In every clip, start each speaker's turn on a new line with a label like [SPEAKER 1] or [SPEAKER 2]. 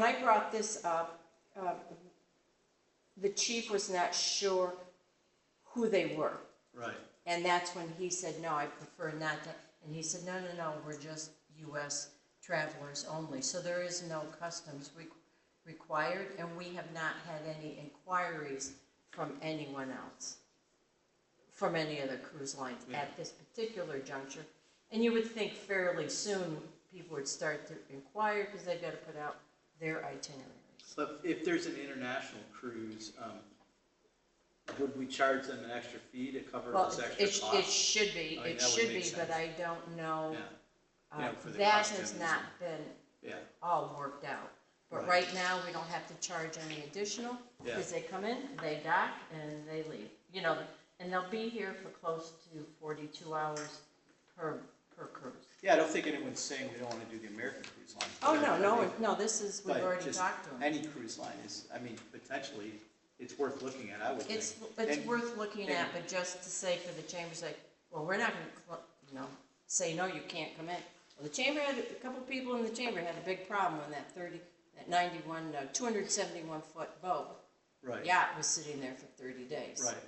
[SPEAKER 1] When I brought this up, uh, the chief was not sure who they were.
[SPEAKER 2] Right,
[SPEAKER 1] And that's when he said, no, I prefer not to. And he said, no, no, no, we're just US travelers only. So there is no customs re- required, and we have not had any inquiries from anyone else, from any other cruise lines at this particular juncture. And you would think fairly soon, people would start to inquire, because they've got to put out their itineraries.
[SPEAKER 2] but if there's an international cruise, um, would we charge them an extra fee to cover
[SPEAKER 1] Well,
[SPEAKER 2] this extra
[SPEAKER 1] it, it
[SPEAKER 2] cost?
[SPEAKER 1] should be,
[SPEAKER 2] I mean,
[SPEAKER 1] it
[SPEAKER 2] that would
[SPEAKER 1] should
[SPEAKER 2] make
[SPEAKER 1] be, but
[SPEAKER 2] sense.
[SPEAKER 1] I don't know.
[SPEAKER 2] Yeah,
[SPEAKER 1] uh,
[SPEAKER 2] you know, for the
[SPEAKER 1] That
[SPEAKER 2] costumes
[SPEAKER 1] has
[SPEAKER 2] and-
[SPEAKER 1] not been
[SPEAKER 2] yeah,
[SPEAKER 1] all worked out. But
[SPEAKER 2] Right.
[SPEAKER 1] right now, we don't have to charge any additional,
[SPEAKER 2] Yeah.
[SPEAKER 1] because they come in, they dock, and they leave. You know, and they'll be here for close to forty-two hours per, per cruise.
[SPEAKER 3] Yeah, I don't think anyone's saying we don't want to do the American cruise line.
[SPEAKER 1] Oh, no,
[SPEAKER 3] I
[SPEAKER 1] no,
[SPEAKER 3] mean,
[SPEAKER 1] no, this is, we've
[SPEAKER 3] but
[SPEAKER 1] already
[SPEAKER 3] just
[SPEAKER 1] talked to them.
[SPEAKER 3] Any cruise line is, I mean, potentially, it's worth looking at, I would think.
[SPEAKER 1] It's, it's
[SPEAKER 3] and-
[SPEAKER 1] worth looking at,
[SPEAKER 3] and-
[SPEAKER 1] but just to say for the chambers, like, well, we're not gonna, cl- you know, say, no, you can't come in. Well, the chamber had, a couple people in the chamber had a big problem when that thirty, that ninety-one, uh, two hundred seventy-one foot boat
[SPEAKER 2] right,
[SPEAKER 1] yacht was sitting there for thirty days.
[SPEAKER 2] right.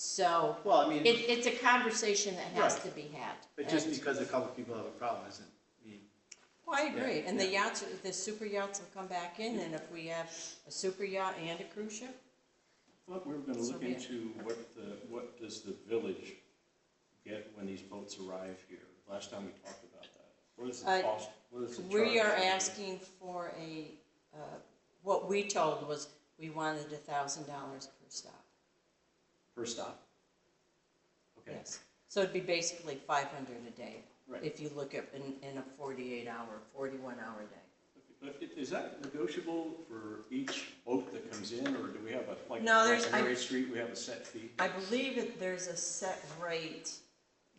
[SPEAKER 1] So,
[SPEAKER 3] Well, I
[SPEAKER 1] it,
[SPEAKER 3] mean,
[SPEAKER 1] it's a conversation that has
[SPEAKER 3] Right.
[SPEAKER 1] to be had.
[SPEAKER 2] But just
[SPEAKER 1] And-
[SPEAKER 2] because a couple people have a problem isn't, mean,
[SPEAKER 1] Well, I agree, and the
[SPEAKER 2] yeah.
[SPEAKER 1] yachts, the super yachts will come back in, and if we have a super yacht and a cruise ship,
[SPEAKER 4] Thought we were gonna
[SPEAKER 1] So
[SPEAKER 4] look
[SPEAKER 1] be it.
[SPEAKER 4] into what the, what does the village get when these boats arrive here? Last time we talked about that. What is the
[SPEAKER 1] Uh,
[SPEAKER 4] cost, what is the charge?
[SPEAKER 1] We are asking for a, uh, what we told was, we wanted a thousand dollars per stop,
[SPEAKER 4] Per stop? Okay,
[SPEAKER 1] yes. So it'd be basically five hundred a day,
[SPEAKER 4] Right.
[SPEAKER 1] if you look at, in, in a forty-eight hour, forty-one hour day.
[SPEAKER 4] But i- is that negotiable for each boat that comes in, or do we have a, like,
[SPEAKER 1] No, there's- I-
[SPEAKER 4] like Mary Street, we have a set fee?
[SPEAKER 1] I believe that there's a set rate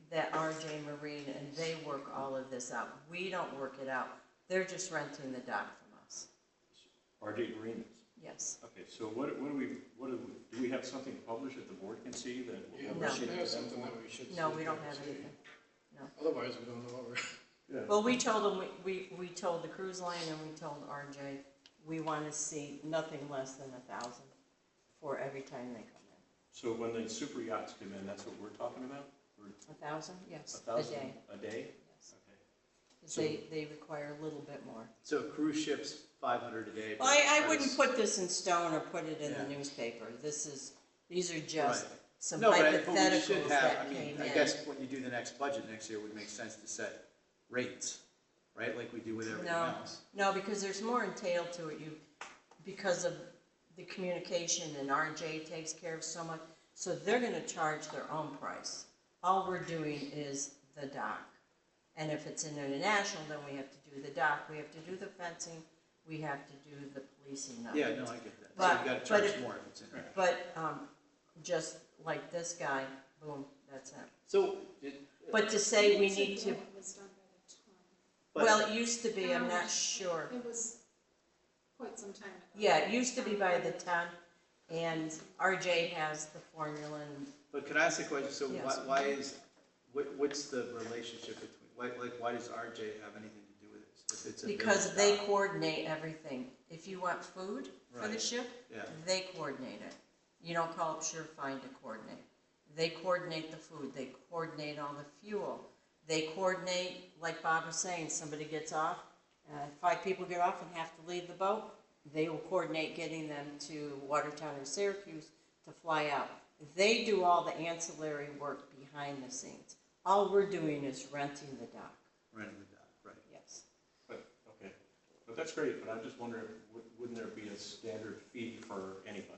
[SPEAKER 1] that RJ Marine, and they work all of this out. We don't work it out, they're just renting the dock from us,
[SPEAKER 4] RJ Marinas.
[SPEAKER 1] yes.
[SPEAKER 4] Okay, so what, what do we, what do, we- do we have something published that the board can see that? we'll
[SPEAKER 5] Yeah,
[SPEAKER 4] have
[SPEAKER 1] No.
[SPEAKER 5] we should
[SPEAKER 4] received
[SPEAKER 5] have
[SPEAKER 4] to them?
[SPEAKER 5] something that we should.
[SPEAKER 1] No,
[SPEAKER 5] say
[SPEAKER 1] we
[SPEAKER 5] to
[SPEAKER 1] don't
[SPEAKER 5] the
[SPEAKER 1] have
[SPEAKER 5] city.
[SPEAKER 1] anything.
[SPEAKER 5] Otherwise, we don't know what we're.
[SPEAKER 4] Yeah.
[SPEAKER 1] Well, we told them, we, we, we told the cruise line and we told RJ, we want to see nothing less than a thousand for every time they come
[SPEAKER 4] So when the super yachts come in, that's what we're talking about? Or
[SPEAKER 1] in. A thousand?
[SPEAKER 4] a
[SPEAKER 1] Yes, a
[SPEAKER 4] thousand
[SPEAKER 1] day.
[SPEAKER 4] a day?
[SPEAKER 1] yes.
[SPEAKER 4] Okay.
[SPEAKER 1] 'Cause They, they require a little bit more.
[SPEAKER 2] so cruise ships, five hundred a day.
[SPEAKER 1] Well, I, I
[SPEAKER 2] but
[SPEAKER 1] wouldn't
[SPEAKER 2] it's-
[SPEAKER 1] put this in stone or put it in the
[SPEAKER 2] Yeah.
[SPEAKER 1] newspaper. This is, these are just
[SPEAKER 2] Right.
[SPEAKER 1] some
[SPEAKER 2] No, but I- but we
[SPEAKER 1] hypotheticals
[SPEAKER 2] should have,
[SPEAKER 1] that came
[SPEAKER 2] I mean,
[SPEAKER 1] in.
[SPEAKER 2] I guess when you do the next budget next year, it would make sense to set rates, right, like we do with everything
[SPEAKER 1] No.
[SPEAKER 2] else.
[SPEAKER 1] No, because there's more entailed to it, you, because of the communication and RJ takes care of so much, so they're gonna charge their own price. All we're doing is the dock. And if it's international, then we have to do the dock, we have to do the fencing, we have to do the policing of it.
[SPEAKER 2] Yeah, no, I get that, so
[SPEAKER 1] But-
[SPEAKER 2] you've
[SPEAKER 1] but
[SPEAKER 2] gotta charge
[SPEAKER 1] it-
[SPEAKER 2] more if it's in there.
[SPEAKER 1] But, um, just like this guy, boom, that's it.
[SPEAKER 2] So, it-
[SPEAKER 1] But to say we need to,
[SPEAKER 6] It was done by the time.
[SPEAKER 1] well,
[SPEAKER 2] but,
[SPEAKER 1] it used to be, I'm not sure.
[SPEAKER 6] It was quite some time ago.
[SPEAKER 1] Yeah, it used to be by the ton, and RJ has the formula, and
[SPEAKER 2] but can I ask a question, so why,
[SPEAKER 1] Yes.
[SPEAKER 2] why is, what, what's the relationship between, why, like, why does RJ have anything to do with this? If it's a
[SPEAKER 1] because
[SPEAKER 2] village
[SPEAKER 1] they
[SPEAKER 2] dock?
[SPEAKER 1] coordinate everything. If you want food for the
[SPEAKER 2] Right.
[SPEAKER 1] ship,
[SPEAKER 2] Yeah,
[SPEAKER 1] they coordinate it. You don't call up Surefine to coordinate. They coordinate the food, they coordinate all the fuel, they coordinate, like Bob was saying, somebody gets off, uh, five people get off and have to leave the boat, they will coordinate getting them to Watertown or Syracuse to fly out. They do all the ancillary work behind the scenes. All we're doing is renting the dock,
[SPEAKER 2] renting the dock, right.
[SPEAKER 1] yes.
[SPEAKER 4] But, okay, but that's great, but I'm just wondering, wou- wouldn't there be a standard fee for anybody?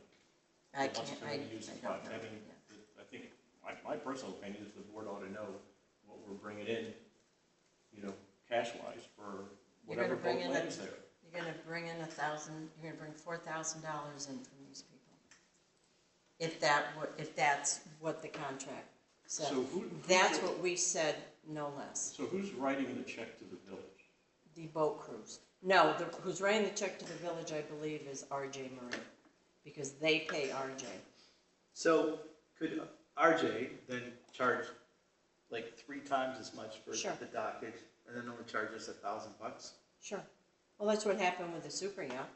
[SPEAKER 1] I
[SPEAKER 4] that
[SPEAKER 1] can't,
[SPEAKER 4] wants to come
[SPEAKER 1] I,
[SPEAKER 4] in and use the
[SPEAKER 1] I don't
[SPEAKER 4] dock?
[SPEAKER 1] know.
[SPEAKER 4] I mean,
[SPEAKER 1] Yeah.
[SPEAKER 4] I think, my, my personal opinion is the board ought to know what we're bringing in, you know, cash-wise for
[SPEAKER 1] You're gonna
[SPEAKER 4] whatever
[SPEAKER 1] bring
[SPEAKER 4] boat
[SPEAKER 1] in a-
[SPEAKER 4] lands there.
[SPEAKER 1] You're gonna bring in a thousand, you're gonna bring four thousand dollars in from these people. If that, wa- if that's what the contract said.
[SPEAKER 4] So who- who's
[SPEAKER 1] That's
[SPEAKER 4] your-
[SPEAKER 1] what we said, no less.
[SPEAKER 4] So who's writing the check to the village?
[SPEAKER 1] The boat crews. No, the, who's writing the check to the village, I believe, is RJ Marine, because they pay RJ.
[SPEAKER 2] So could RJ then charge like three times as much for
[SPEAKER 1] Sure.
[SPEAKER 2] the dockage and then only charge us a thousand bucks?
[SPEAKER 1] Sure. Well, that's what happened with the super yacht.